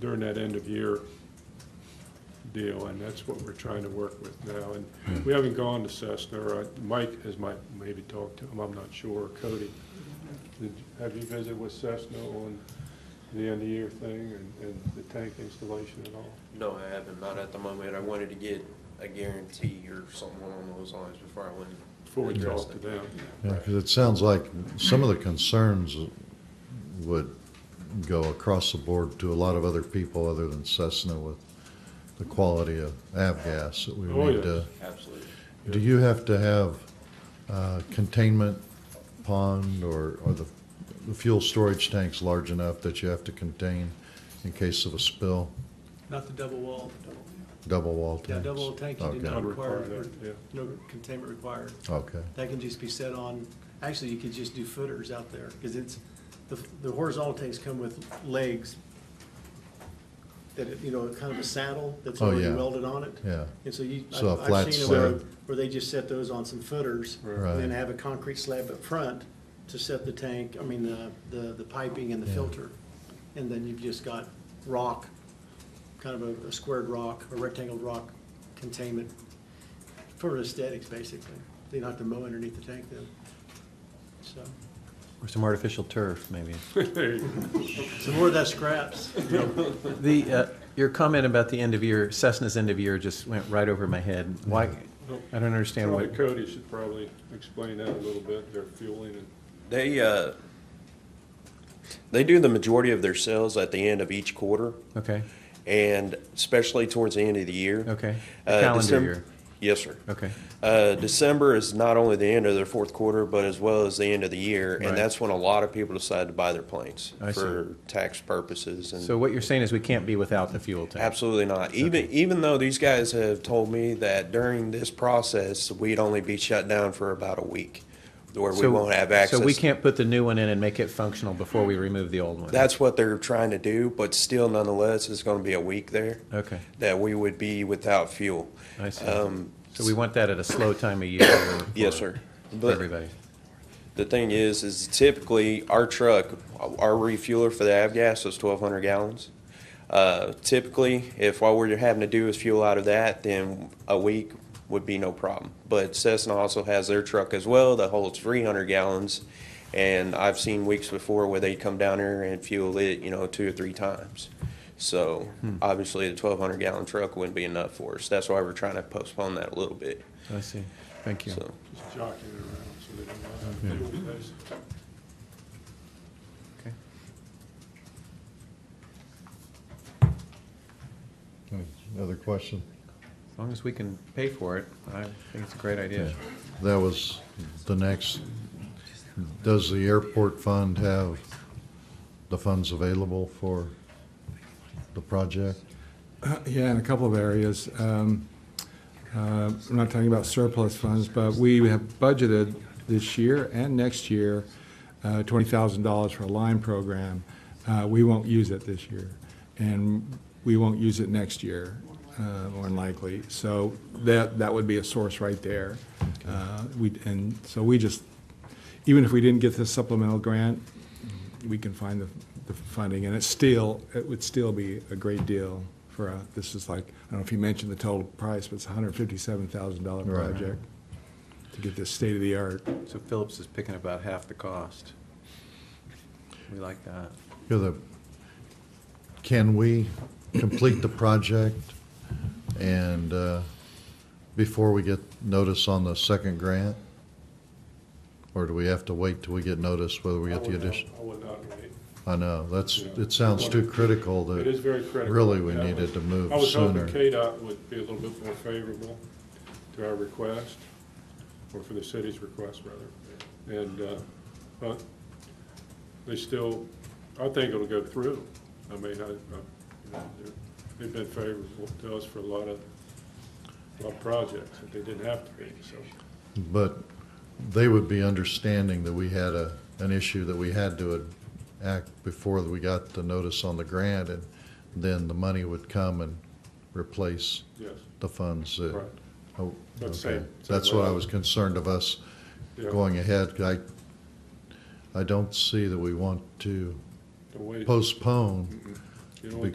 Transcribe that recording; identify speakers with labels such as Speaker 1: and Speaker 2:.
Speaker 1: during that end of year deal, and that's what we're trying to work with now.
Speaker 2: Hmm.
Speaker 1: And we haven't gone to Cessna, or I- Mike has might, maybe talked to him, I'm not sure, Cody. Did- Have you visited with Cessna on the end of year thing and, and the tank installation at all?
Speaker 3: No, I haven't, not at the moment. I wanted to get a guarantee or something along those lines before I went. and
Speaker 1: Before we
Speaker 3: addressed
Speaker 1: talk to
Speaker 3: it.
Speaker 1: them?
Speaker 2: Yeah, because it sounds like some of the concerns would go across the board to a lot of other people other than Cessna with the quality of avgas that we
Speaker 1: Oh,
Speaker 2: need
Speaker 1: yes.
Speaker 2: to.
Speaker 3: Absolutely.
Speaker 2: Do you have to have uh, containment pond or, or the, the fuel storage tanks large enough that you have to contain in case of a spill?
Speaker 4: Not the double wall.
Speaker 2: Double wall tanks?
Speaker 4: Yeah, double wall tank, you did
Speaker 1: Not
Speaker 4: not
Speaker 2: Okay.
Speaker 1: require
Speaker 4: require,
Speaker 1: that, yeah.
Speaker 4: no containment required.
Speaker 2: Okay,
Speaker 4: That can just be set on, actually, you could just do footers out there, because it's, the, the horizontal tanks come with legs that, it- you know, kind of a saddle that's
Speaker 2: Oh,
Speaker 4: already
Speaker 2: yeah.
Speaker 4: welded on it.
Speaker 2: yeah,
Speaker 4: And so you,
Speaker 2: So a
Speaker 4: I've
Speaker 2: flat
Speaker 4: I've seen them where,
Speaker 2: slab.
Speaker 4: where they just set those on some footers,
Speaker 2: Right.
Speaker 4: and then have a concrete slab up front to set the tank, I mean, the, the, the piping and the
Speaker 2: Yeah.
Speaker 4: filter. And then you've just got rock, kind of a- a squared rock, a rectangled rock containment for aesthetics, basically. They don't have to mow underneath the tank then, so.
Speaker 5: Or some artificial turf, maybe.
Speaker 1: There you go.
Speaker 4: Some more of that scraps.
Speaker 5: The, uh, your comment about the end of year, Cessna's end of year just went right over my head. Why, I don't understand
Speaker 1: Probably
Speaker 5: what,
Speaker 1: Cody should probably explain that a little bit, their fueling and
Speaker 3: They, uh, they do the majority of their sales at the end of each quarter
Speaker 5: okay,
Speaker 3: and especially towards the end of the year.
Speaker 5: okay. The
Speaker 3: Uh,
Speaker 5: calendar
Speaker 3: Decem-
Speaker 5: year,
Speaker 3: Yes, sir.
Speaker 5: okay.
Speaker 3: Uh, December is not only the end of their fourth quarter, but as well as the end of the year,
Speaker 5: Right.
Speaker 3: and that's when a lot of people decide to buy their planes
Speaker 5: I see.
Speaker 3: for tax purposes and.
Speaker 5: So what you're saying is we can't be without the fuel tank?
Speaker 3: Absolutely not. Even even though these guys have told me that during this process we'd only be shut down for about a week, where we
Speaker 5: So-
Speaker 3: won't have access.
Speaker 5: So we can't put the new one in and make it functional before we remove the old one?
Speaker 3: That's what they're trying to do, but still, nonetheless, it's going to be a week there
Speaker 5: Okay,
Speaker 3: that we would be without fuel.
Speaker 5: I see.
Speaker 3: Um,
Speaker 5: So we want that at a slow time of year? for-
Speaker 3: Yes, sir.
Speaker 5: For
Speaker 3: But
Speaker 5: everybody?
Speaker 3: the thing is, is typically our truck, our refueler for the avgas is twelve hundred gallons. Uh, typically, if all we're having to do is fuel out of that, then a week would be no problem. But Cessna also has their truck as well that holds three hundred gallons. And I've seen weeks before where they come down here and fuel it, you know, two or three times. So obviously, the twelve hundred gallon truck wouldn't be enough for us. That's why we're trying to postpone that a little bit,
Speaker 5: I see, thank you.
Speaker 3: so.
Speaker 1: just jockeying it around so they don't have to fuel base.
Speaker 5: Okay.
Speaker 2: another question?
Speaker 5: As long as we can pay for it, I think it's a great idea.
Speaker 2: That was the next, does the airport fund have the funds available for the project?
Speaker 6: Uh, Yeah, in a couple of areas. Um, uh, We're not talking about surplus funds, but we have budgeted this year and next year uh, $20,000 for a line program. Uh, We won't use it this year, and we won't use it next year, uh, more than likely. So that, that would be a source right there. Uh, We And so we just, even if we didn't get this supplemental grant, we can find the, the funding, and it's still, it would still be a great deal for a, this is like, I don't know if you mentioned the total price, but it's a hundred fifty-seven thousand dollar
Speaker 2: Right.
Speaker 6: project to get this state-of-the-art.
Speaker 5: So Phillips is picking about half the cost. We like that.
Speaker 2: You're the- Can we complete the project and, uh, before we get notice on the second grant? Or do we have to wait till we get notice whether we
Speaker 1: I
Speaker 2: get the
Speaker 1: would not-
Speaker 2: addition?
Speaker 1: I would not wait.
Speaker 2: I know, that's, it sounds too critical that.
Speaker 1: It is very critical.
Speaker 2: Really, we
Speaker 1: Yeah.
Speaker 2: needed to move
Speaker 1: I was hoping
Speaker 2: sooner.
Speaker 1: KDOT would be a little bit more favorable to our request, or for the city's request, rather. And, uh, but they still, I think it'll go through. I mean, I, I, you know, they're- they've been favorable to us for a lot of, a lot of projects that they didn't have to be, so.
Speaker 2: But they would be understanding that we had a, an issue that we had to act before we got the notice on the grant, and then the money would come and replace
Speaker 1: Yes.
Speaker 2: the funds that.
Speaker 1: Right.
Speaker 2: Oh,
Speaker 1: But same-
Speaker 2: okay.
Speaker 1: same
Speaker 2: That's what I
Speaker 1: way.
Speaker 2: was concerned of us
Speaker 1: Yeah.
Speaker 2: going ahead. I, I don't see that we want to
Speaker 1: The way-
Speaker 2: postpone
Speaker 1: you know,